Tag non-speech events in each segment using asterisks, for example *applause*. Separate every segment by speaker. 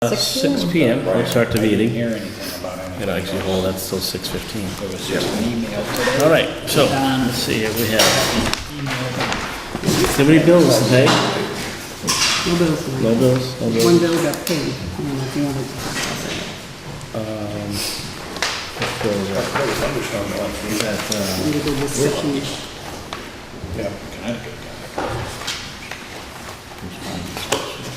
Speaker 1: Uh,
Speaker 2: Six
Speaker 1: six
Speaker 2: PM.
Speaker 1: PM, we'll start the
Speaker 3: I
Speaker 1: meeting.
Speaker 3: didn't hear anything about anything.
Speaker 1: And actually, hold, that's still six fifteen.
Speaker 3: It was just an email today.
Speaker 1: All right, so, let's see, here we have. So many bills to pay?
Speaker 2: No bills
Speaker 1: No
Speaker 2: tonight.
Speaker 1: bills, no
Speaker 2: One
Speaker 1: bills.
Speaker 2: bill got paid, I don't know if you want to discuss it.
Speaker 1: Bills are-
Speaker 3: There was thunderstorm going through that, uh,
Speaker 2: Need to go with section-
Speaker 3: yeah, Connecticut.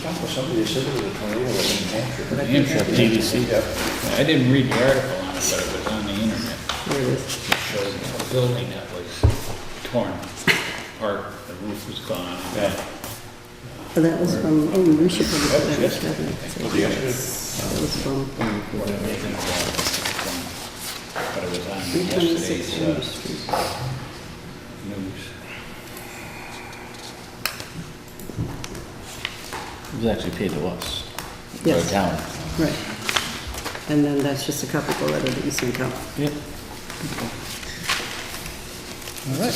Speaker 3: Talked with somebody that said there was a tornado in New Hampshire. but I think
Speaker 1: Hampshire,
Speaker 3: that was-
Speaker 1: PVC.
Speaker 3: Yeah. I didn't read the article on it, but it was on the internet.
Speaker 2: There it is.
Speaker 3: It showed a building that was torn apart, the roof was gone.
Speaker 2: But that was from, oh, we should probably put that in the That was from
Speaker 3: Whatever they think about it, it's gone. But it was
Speaker 2: three
Speaker 3: on
Speaker 2: twenty-six
Speaker 3: yesterday's,
Speaker 2: Chambers
Speaker 3: uh,
Speaker 2: Street.
Speaker 3: news.
Speaker 1: It was actually paid to us. the
Speaker 2: Yes.
Speaker 1: Town.
Speaker 2: Right. And then that's just a copy of the letter that you sent out.
Speaker 1: Yep.
Speaker 3: All right.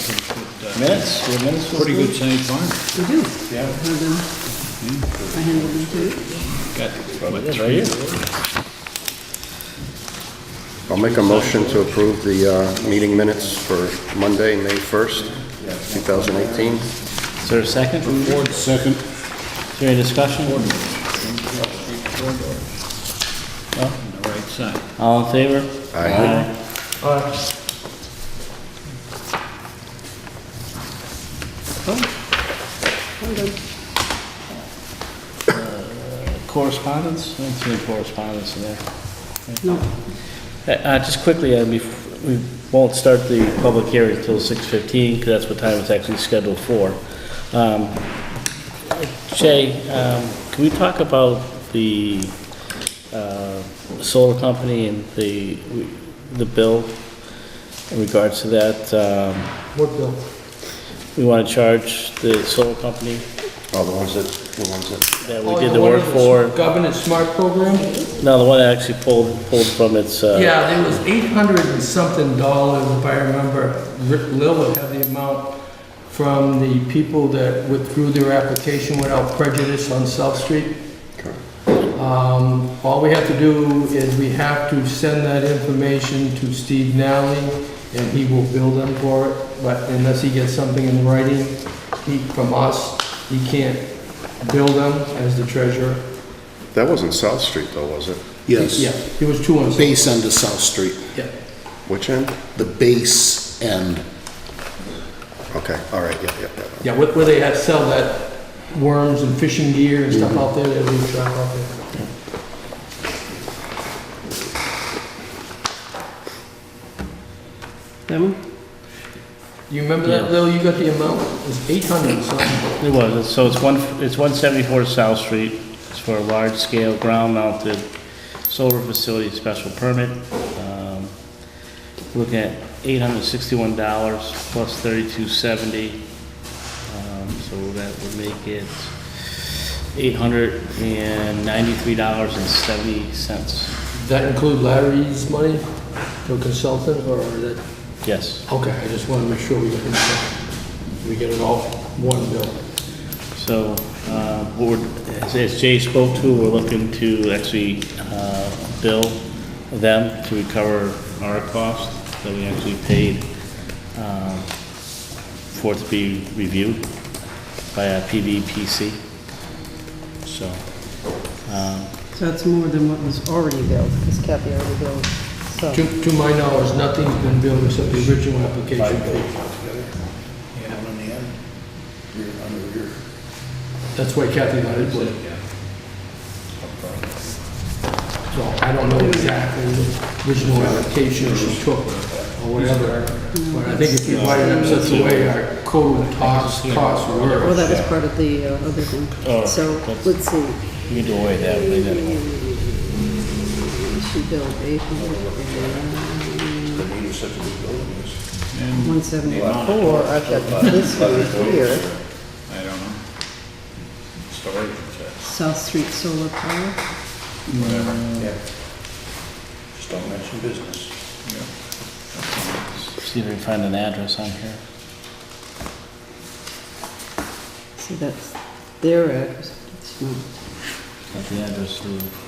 Speaker 1: Minutes, we have minutes for
Speaker 3: Pretty
Speaker 1: this
Speaker 3: good sized barn.
Speaker 2: We do.
Speaker 3: Yeah.
Speaker 2: I have them. I handed them to you.
Speaker 3: Got
Speaker 1: week?
Speaker 3: what,
Speaker 1: Yes,
Speaker 3: three?
Speaker 1: right here.
Speaker 4: I'll make a motion to approve the uh, meeting minutes for Monday, May 1st, 2018.
Speaker 1: Is there a second? Ford, second. Is there any discussion?
Speaker 3: Well, on the right side.
Speaker 1: All in favor?
Speaker 4: Aye.
Speaker 2: Hold on.
Speaker 1: Correspondence? I don't see any correspondence in there.
Speaker 2: No,
Speaker 1: Uh, uh, Just quickly, uh, bef- we won't start the public hearing until 6:15, because that's what time it's actually scheduled for. Um, Jay, um, can we talk about the uh, solar company and the, the bill in regards to that? um,
Speaker 5: What bill?
Speaker 1: We want to charge the solar company
Speaker 4: Oh, the ones that, the ones that,
Speaker 1: that
Speaker 5: Oh,
Speaker 1: we did the work for? Uh,
Speaker 5: Governance Smart Program?
Speaker 1: No, the one that actually pulled, pulled from its, uh,
Speaker 5: Yeah, there was eight hundred and something dollars, if I remember, Rick Lilly had the amount from the people that withdrew their application without prejudice on South Street. Um, All we have to do is we have to send that information to Steve Nally, and he will bill them for it, but unless he gets something in writing, he, from us, he can't bill them as the treasurer.
Speaker 4: that wasn't South Street though, was it?
Speaker 5: Yeah,
Speaker 6: Yes,
Speaker 5: it was two on South.
Speaker 6: base end of South Street,
Speaker 5: Yeah.
Speaker 4: Which end?
Speaker 6: the base end.
Speaker 4: Okay, all right, yeah, yeah, yeah.
Speaker 5: Yeah, where where they had sell that worms and fishing gear and stuff out there, they leave stuff out there.
Speaker 2: that one?
Speaker 5: You remember that, Lil, you got the amount, it was eight hundred something.
Speaker 1: It was, so it's one, it's one seventy-four South Street, it's for a large-scale ground-mounted solar facility special permit. Um, Looking at eight hundred sixty-one dollars plus thirty-two seventy, um, so that would make it eight hundred and ninety-three dollars and seventy cents.
Speaker 5: Does that include Larry's money to a consultant, or that,
Speaker 1: Yes,
Speaker 5: okay, I just wanna make sure we get it, we get it all one bill.
Speaker 1: so, uh, what we're- as- as Jay spoke to, we're looking to actually, uh, bill them to recover our cost that we actually paid, um, for it to be reviewed by a PVPC. So, um,
Speaker 2: So it's more than what was already billed, because Kathy already billed, so.
Speaker 5: To, to my knowledge, nothing's been billed except the original application fee.
Speaker 3: Yeah, on the end.
Speaker 5: That's why Kathy got it, but- so I don't know exactly the original application she took or whatever. But I think if you write it up such a way our code talks, costs
Speaker 2: Well,
Speaker 5: were.
Speaker 2: that was part of the uh, other
Speaker 1: Oh,
Speaker 2: thing. So,
Speaker 1: that's-
Speaker 2: let's see.
Speaker 1: you can do away with that, but then-
Speaker 2: She billed eight hundred and one seventy-four. I've got *laughs* this one here,
Speaker 3: I don't know. Storage, it's
Speaker 2: South Street Solar Power.
Speaker 3: a- whatever. Yeah. Just don't mention business. Yeah.
Speaker 1: see if we can find an address on here.
Speaker 2: See, that's their address. It's not-
Speaker 1: Got the address of